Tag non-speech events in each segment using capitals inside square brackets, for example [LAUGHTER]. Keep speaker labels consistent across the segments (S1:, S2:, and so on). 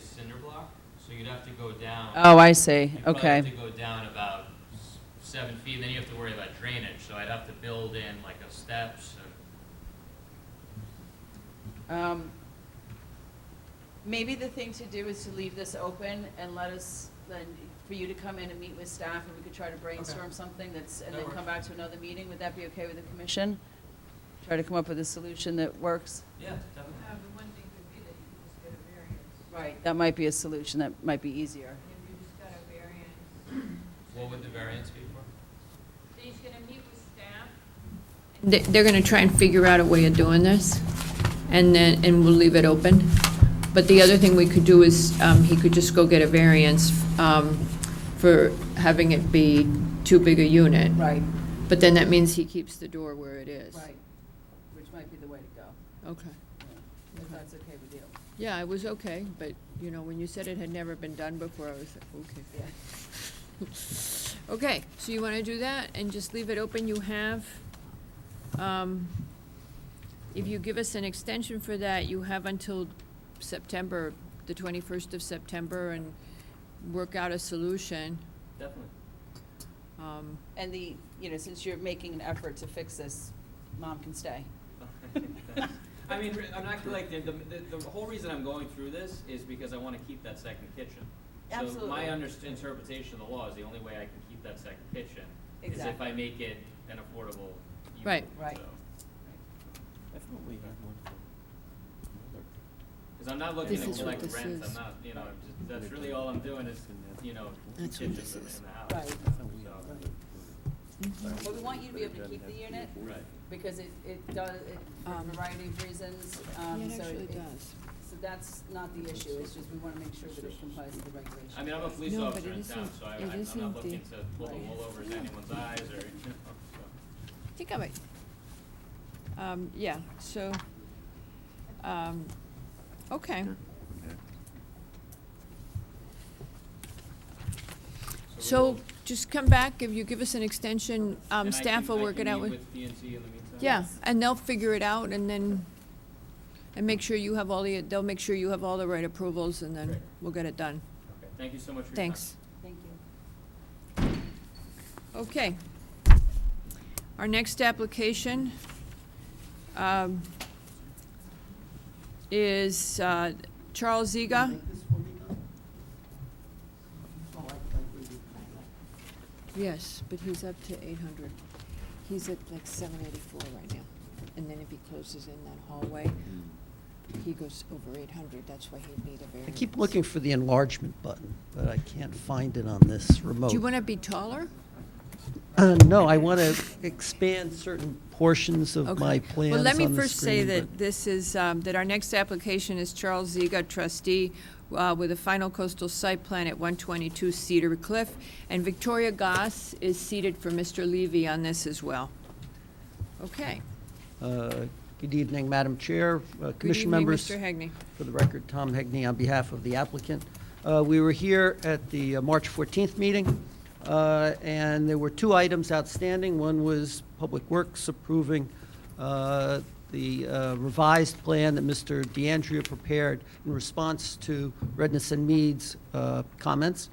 S1: cinder block, so you'd have to go down.
S2: Oh, I see,
S1: You'd probably have to
S2: okay.
S1: go down about s- seven feet, and then you have to worry about drainage, so I'd have to build in like a steps and
S2: Um, Maybe the thing to do is to leave this open and let us, then, for you to come in and meet with staff, and we could try to brainstorm something that's, and
S1: That
S2: then
S1: works.
S2: come back to another meeting, would that be okay with the commission? Try to come up with a solution that works?
S1: Yeah, definitely.
S3: Uh, the one thing could be that you could just get a variance.
S2: Right. That might be a solution that might be easier.
S3: If you just got a variance.
S1: What would the variance be for?
S3: So he's gonna meet with staff?
S4: They- They're going to try and figure out a way of doing this, and then, and we'll leave it open. But the other thing we could do is, um, he could just go get a variance um, for having it be too big a unit.
S2: Right,
S4: But then that means he keeps the door where it is.
S2: right, which might be the way to go,
S4: Okay.
S2: yeah,
S4: Okay.
S2: if that's okay with you.
S4: Yeah, it was okay, but, you know, when you said it had never been done before, I was like, okay.
S2: Yeah.
S4: Okay, so you want to do that and just leave it open, you have, um, if you give us an extension for that, you have until September, the twenty-first of September, and work out a solution.
S1: Definitely.
S4: Um,
S2: And the, you know, since you're making an effort to fix this, mom can stay.
S5: [LAUGHS] I mean, re- I'm not like, the, the, the whole reason I'm going through this is because I wanna keep that second kitchen. So
S2: Absolutely.
S5: my underst- interpretation of the law is the only way I can keep that second kitchen is if
S2: Exactly.
S5: I make it an affordable unit.
S4: Right.
S2: Right.
S5: so.
S6: I thought we had one for
S5: Cause I'm not looking
S4: This
S5: to
S4: is what
S5: collect
S4: this
S5: rent, I'm
S4: is.
S5: not, you know, I'm just, that's really all I'm doing is, you know, two
S4: That's what
S5: kitchens
S4: this
S5: in the
S4: is.
S5: in the house.
S2: Right.
S6: I thought we had
S5: So-
S6: one
S2: But we want you to be able to keep the unit
S5: Right.
S2: because it, it does, it, for a
S4: Um,
S2: variety of reasons,
S4: Yeah,
S2: um,
S4: it
S2: so
S4: actually
S2: it,
S4: does.
S2: so that's not the issue, it's just we wanna make sure that it complies with the regulations.
S5: I mean, I'm a police
S4: No,
S5: officer
S4: but it
S5: in town,
S4: isn't-
S5: so I,
S4: it
S5: I'm I'm
S4: isn't
S5: not
S4: the-
S5: looking to pull the
S2: Right.
S5: wool over anyone's eyes or, you know, so.
S4: I think I might, um, yeah, so, um, okay. So just come back, if you give us an extension, um,
S5: And I
S4: staff
S5: can-
S4: will work it out
S5: I can
S4: with.
S5: meet with DNC in the meantime?
S4: Yeah, and they'll figure it out and then, and make sure you have all the, they'll make sure you have all the right approvals and then
S5: Great.
S4: we'll get it done.
S5: Okay, Thank you so much for your time.
S4: Thanks.
S2: Thank you.
S4: Okay. Our next application um, is uh, Charles Ziga. Yes, but he's up to eight hundred. He's at like seven eighty-four right now. And then if he closes in that hallway, he goes over eight hundred, that's why he'd need a
S6: I
S4: variance.
S6: keep looking for the enlargement button, but I can't find it on this remote.
S4: Do you want to be taller?
S6: Uh, no, I want to expand certain portions of
S4: Okay.
S6: my plans
S4: Well, let me
S6: on the
S4: first say
S6: screen,
S4: that
S6: but-
S4: this is, um, that our next application is Charles Ziga, trustee, uh, with a final coastal site plan at 122 Cedar Cliff, and Victoria Goss is seated for Mr. Levy on this as well. Okay.
S6: Uh, Good evening, Madam Chair, uh, Commission members.
S4: Good evening, Mr. Hegney.
S6: For the record, Tom Hegney on behalf of the applicant. Uh, We were here at the uh, March 14th meeting, uh, and there were two items outstanding. One was Public Works approving uh, the uh, revised plan that Mr. DeAndrea prepared in response to Redness and Mead's uh, comments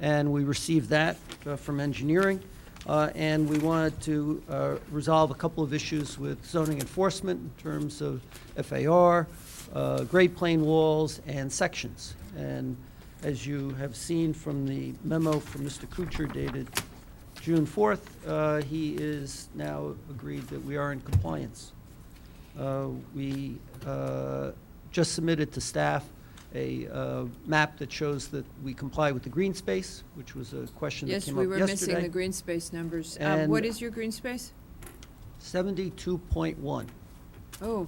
S6: and we received that uh, from engineering. Uh, And we wanted to uh, resolve a couple of issues with zoning enforcement in terms of FAR, uh, grade plane walls, and sections. And as you have seen from the memo from Mr. Kuchar dated June 4th, uh, he is now agreed that we are in compliance. Uh, We uh, just submitted to staff a uh, map that shows that we comply with the green space, which was a question that
S4: Yes,
S6: came
S4: we
S6: up
S4: were
S6: yesterday.
S4: missing the green space numbers. Um, What
S6: And-
S4: is your green space?
S6: 72.1.
S4: Oh,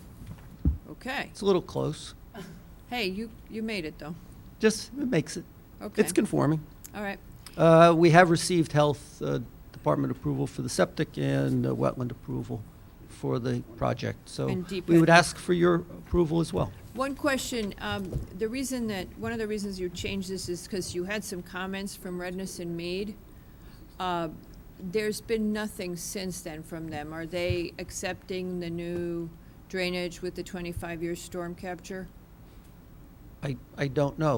S4: okay.
S6: It's a little close.
S4: Hey, you, you made it, though.
S6: Just, it makes it,
S4: Okay,
S6: it's conforming.
S4: all right.
S6: Uh, We have received health uh, department approval for the septic and uh, wetland approval for the project. So
S4: And deep
S6: we would
S4: end.
S6: ask for your approval as well.
S4: One question, um, the reason that, one of the reasons you changed this is because you had some comments from Redness and Mead. Uh, There's been nothing since then from them. Are they accepting the new drainage with the 25-year storm capture?
S6: I, I don't know.